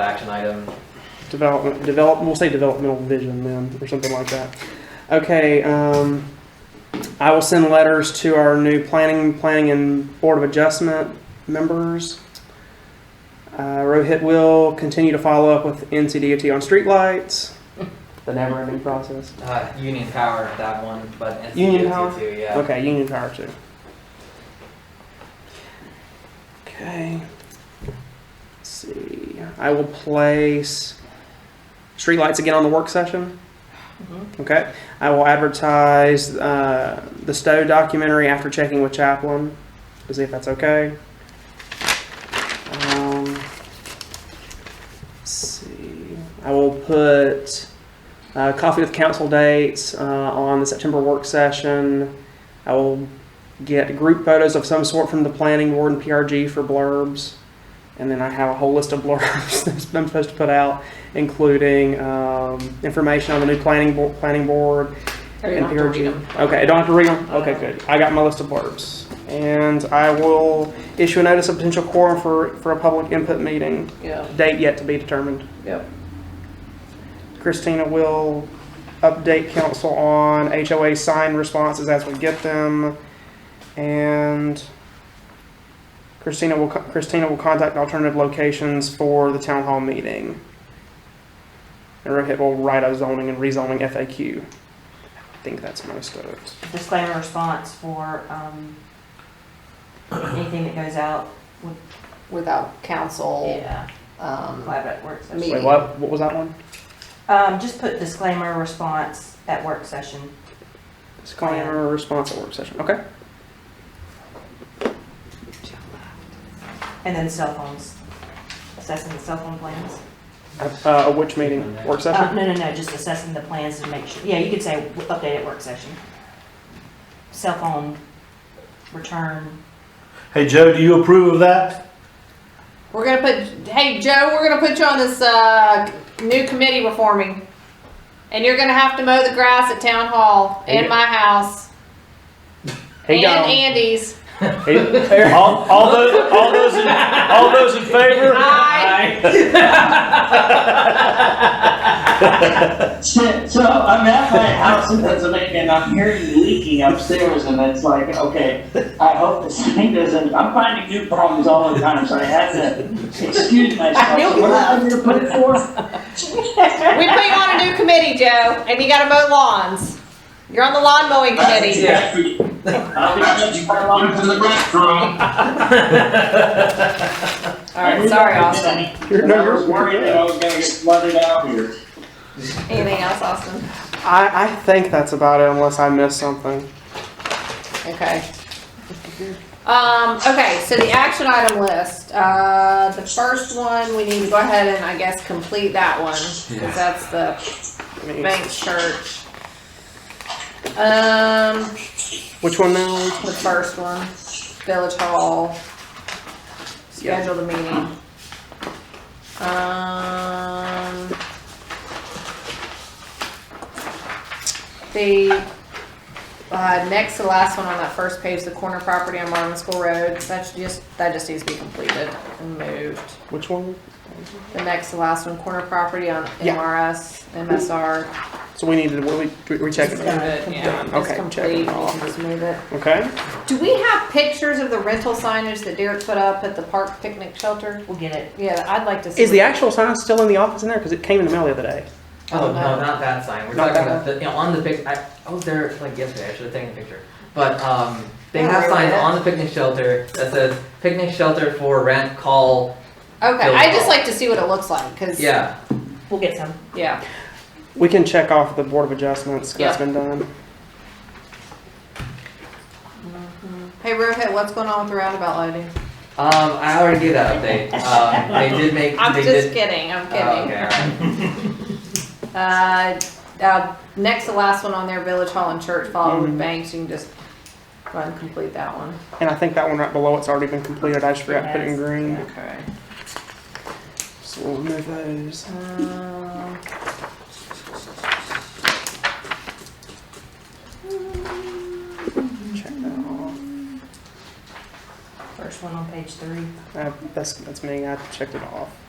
action item. Development, develop, we'll say developmental vision then, or something like that. Okay, um, I will send letters to our new planning, planning and board of adjustment members. Uh, Rohit will continue to follow up with NCDOT on streetlights, the never-ending process. Uh, Union Power, that one, but NCDOT Union Power? too, yeah. Okay, Union Power too. Okay. Let's see. I will place streetlights again on the work session. Mhm. Okay. I will advertise uh, the Stowe documentary after checking with Chaplin to see if that's okay. Um, let's see. I will put uh, coffee with council dates uh, on the September work session. I will get group photos of some sort from the planning board and PRG for blurbs. And then I have a whole list of blurbs that I'm supposed to put out, including um, information on the new planning board, planning board I and don't have to read them. PRG. Okay, I don't have to read them? Okay, good. I got my list of blurbs. And I will issue a notice of potential quorum for, for a public input meeting, Yeah, date yet to be determined. yep. Christina will update council on HOA sign responses as we get them. And Christina will, co- Christina will contact alternative locations for the town hall meeting. And Rohit will write a zoning and rezoning FAQ. I think that's most of it. disclaimer response for, um, anything that goes out. Without council, Yeah. um, Collaborative work session. Me- Wait, what, what was that one? Um, just put disclaimer response at work session. It's calling a response at work session, okay? And then cell phones, assessing the cell phone plans. Uh, which meeting, work Uh, session? no, no, no, just assessing the plans to make sure, yeah, you could say w- update at work session. Cell phone return, Hey, Joe, do you approve of that? we're gonna put, hey, Joe, we're gonna put you on this, uh, new committee we're forming. And you're gonna have to mow the grass at town hall and my house He and got- Andy's. he- All, all those, all those, in, all those in favor? Aye. So, so I'm at my house in Pennsylvania and I'm hearing leaking upstairs and it's like, okay, I hope this thing doesn't, I'm finding new problems all the time, so I had to excuse myself. knew So you What am I gonna put it for? We put you on a new committee, Joe, and you gotta mow lawns. You're on the lawn mowing committee. Yeah. I'll be judged by law. All right, sorry, Austin. You're- no, I you're- was worried that I was gonna get flooded out here. Anything else, Austin? I, I think that's about it unless I missed something. Okay. Um, okay, so the action item list, uh, the first one, we need to go ahead and I guess complete that one, cause that's the I mean, bank church. Um, Which one now? the first one, village hall, Yeah. schedule the meeting. Um. The, uh, next to the last one on that first page, the corner property on Marvin School Road, that's just, that just needs to be completed and moved. Which one? The next to last one, corner property on Yeah. MRS, MSR. So we needed, we, we- we checked Just it. move it, yeah. Done. It's Okay, check complete, it we all. can just move it. Okay. Do we have pictures of the rental signage that Derek put up at the park picnic shelter? we'll get it. Yeah, I'd like to see. Is the actual sign still in the office in there? Because it came in the mail the other day. Oh, no, no. not that sign. We're Not talking that about, the- you know, on the pic, I, I was there like yesterday, I should have taken a picture. But, um, they Don't have worry signs about it. on the picnic shelter that says picnic shelter for rent, call, Okay, I just like to see what it looks like, cause. yeah. We'll get some. Yeah, We can check off the board of adjustments. 'cause That's been done. hey Rohit, what's going on with the roundabout lighting? Um, I already gave that update. Um, they did make, I'm they just did. kidding, I'm Oh, kidding. okay, all right. Uh, uh, next to last one on there, Village Hall and Church followed Mhm. Mm-hmm. with banks, you can just go ahead and complete that one. And I think that one right below it's already been completed. I just forgot to put it in Yes. green. Okay. So we'll remove those. Um, Check that off. First one on page three. Uh, that's that's me. I checked it off.